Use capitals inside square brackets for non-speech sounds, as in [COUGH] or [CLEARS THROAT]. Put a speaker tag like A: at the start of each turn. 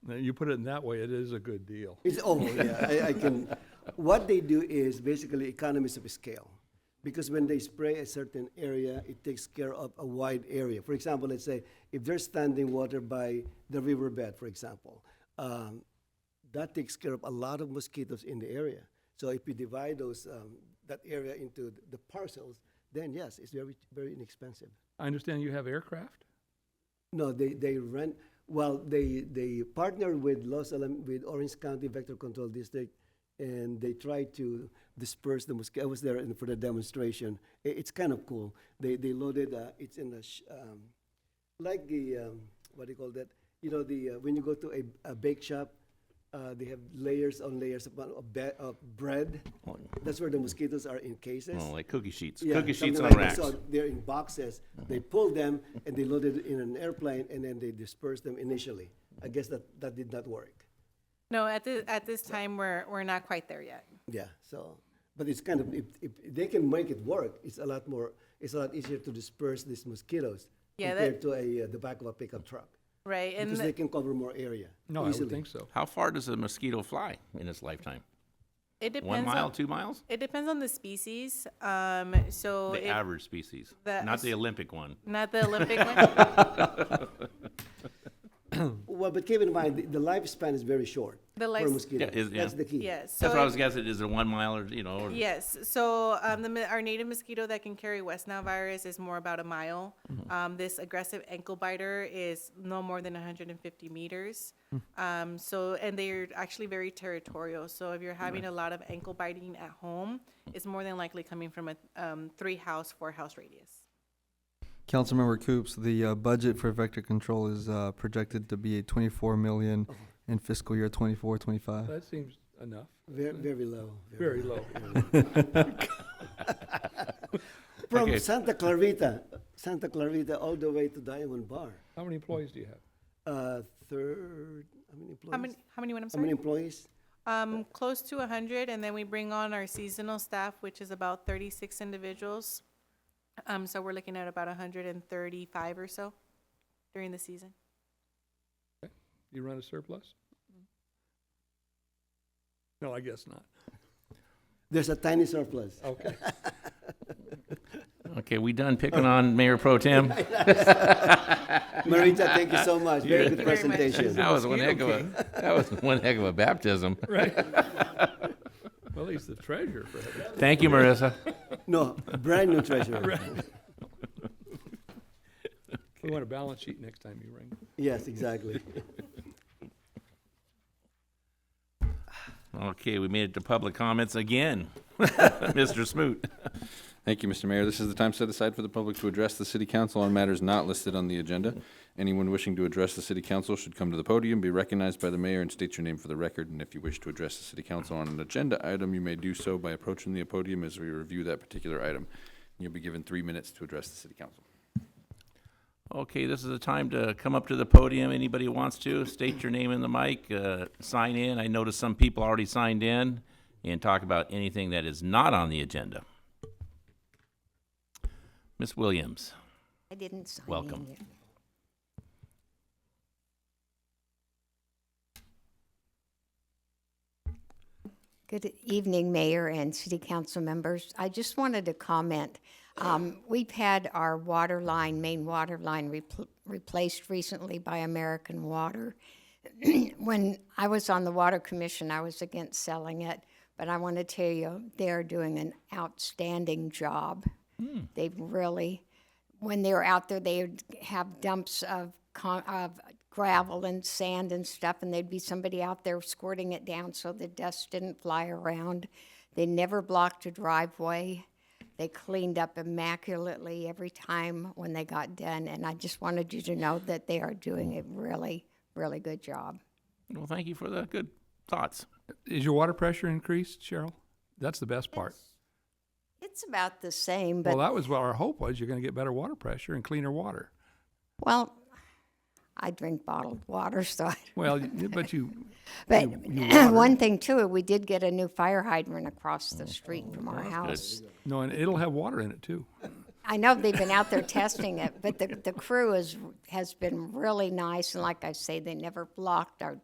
A: Now, You put it in that way, it is a good deal.
B: It's, oh, yeah, I, I can, [LAUGHS] what they do is basically economies of scale. Because when they spray a certain area, it takes care of a wide area. For example, let's say if there's standing water by the riverbed, for example, um, that takes care of a lot of mosquitoes in the area. So if you divide those, um, that area into the parcels, then yes, it's very, very inexpensive.
A: I understand you have aircraft?
B: No, they, they rent, well, they, they partner with Los Alamos, with Orange County Vector Control District, and they try to disperse the mosquito. I was there in- for the demonstration. I- it's kind of cool. They, they loaded, uh, it's in a, sh- um, like the, um, what do you call that? You know, the, uh, when you go to a, a bake shop, uh, they have layers on layers of, of, be- of bread. That's where the mosquitoes are in cases.
C: Oh, like cookie sheets.
B: Yeah,
C: cookie sheets
B: something
C: on
B: like that.
C: racks.
B: So they're in boxes. They pull them and they load it in an airplane and then they disperse them initially. I guess that, that did not work.
D: No, at this, at this time, we're, we're not quite there yet.
B: Yeah, so, but it's kind of, if, if they can make it work, it's a lot more, it's a lot easier to disperse these mosquitoes
D: Yeah,
B: compared
D: that-
B: to a, uh, the back of a pickup truck.
D: Right, and
B: Because they
D: the-
B: can cover more area
A: No, I
B: easily.
A: would think so.
C: How far does a mosquito fly in its lifetime?
D: it depends.
C: One mile,
D: on-
C: two miles?
D: It depends on the species, um, so.
C: The
D: if-
C: average species,
D: the-
C: not the Olympic one.
D: Not the
C: [LAUGHS]
D: Olympic one?
B: Well, but keep in mind, the- the lifespan is very short
D: The
B: for a
D: life-
B: mosquito.
C: Yeah, is- yeah.
B: That's the key.
D: Yes.
C: That's
D: so
C: what I
D: if-
C: was guessing. Is it one mile or, you know? or-
D: Yes, so um, the, mi- our native mosquito that can carry West Nile virus is more about a mile.
C: Mm-hmm.
D: Um, this aggressive ankle biter is no more than 150 meters.
C: Hmm.
D: Um, so, and they're actually very territorial. So, if you're having a lot of ankle biting at home, it's more than likely coming from a um, three house, four house radius.
E: Councilmember Coops, the uh, budget for vector control is uh, projected to be 24 million in fiscal year 24, 25.
A: That seems enough,
B: Very, very low.
A: very low.
B: [LAUGHS] From
C: Okay.
B: Santa Clarita, Santa Clarita, all the way to Diamond Bar.
A: How many employees do you have?
B: Uh, third, how many employees?
D: How many, how many, what, I'm
B: How many
D: sorry?
B: employees?
D: Um, close to 100, and then we bring on our seasonal staff, which is about 36 individuals. Um, so we're looking at about 135 or so during the season.
A: You run a surplus? No, I guess not.
B: There's a tiny surplus.
A: Oh, Okay. [LAUGHS]
C: Okay, we done
B: Oh.
C: picking on Mayor Pro
B: [LAUGHS] [LAUGHS]
C: Tem?
B: Marita, thank you so much. Very
C: [LAUGHS]
B: good
D: Thank you very much.
B: presentation.
C: That was one
A: Mosquito
C: heck of a, that was one heck of a baptism.
A: Right. [LAUGHS] Well, he's the treasurer for heaven's
C: Thank you, Marissa.
B: No, brand
A: [LAUGHS]
B: new treasurer.
A: We want a balance sheet next time you ring.
B: Yes, exactly.
C: Okay, we made it to public comments again. [LAUGHS] Mr. Smoot.
F: Thank you, Mr. Mayor. This is the time set aside for the public to address the city council on matters not listed on the agenda. Anyone wishing to address the city council should come to the podium, be recognized by the mayor, and state your name for the record. And if you wish to address the city council on an agenda item, you may do so by approaching the podium as we review that particular item. You'll be given three minutes to address the city council.
C: Okay, this is the time to come up to the podium. Anybody who wants to, state your name in the mic, uh, sign in. I noticed some people already signed in and talk about anything that is not on the agenda. Miss Williams,
G: I didn't sign in
C: Welcome.
G: yet. Good evening, Mayor and City Council members. I just wanted to comment. Um, We've had our water line, main water line repl- replaced recently by American Water. [CLEARS THROAT] When I was on the Water Commission, I was against selling it, but I want to tell you, they're doing an outstanding job. They've really, when they're out there, they would have dumps of, con- of gravel and sand and stuff, and there'd be somebody out there squirting it down so the dust didn't fly around. They never blocked a driveway. They cleaned up immaculately every time when they got done, and I just wanted you to know that they are doing a really, really good job.
C: well, thank you for the good thoughts.
A: Is your water pressure increased, Cheryl? That's the best part.
G: It's about the same, but
A: Well, that was what our hope was. You're going to get better water pressure and cleaner water.
G: well, I drink bottled water, [LAUGHS] so I
A: Well, y- but you,
G: But
A: you
G: [CLEARS THROAT]
A: water.
G: one thing too, we did get a new fire hydrant across the street from our house.
A: no, and it'll have water in it too.
G: I know they've been out there testing it, but the, the crew is, has been really nice. And like I say, they never blocked our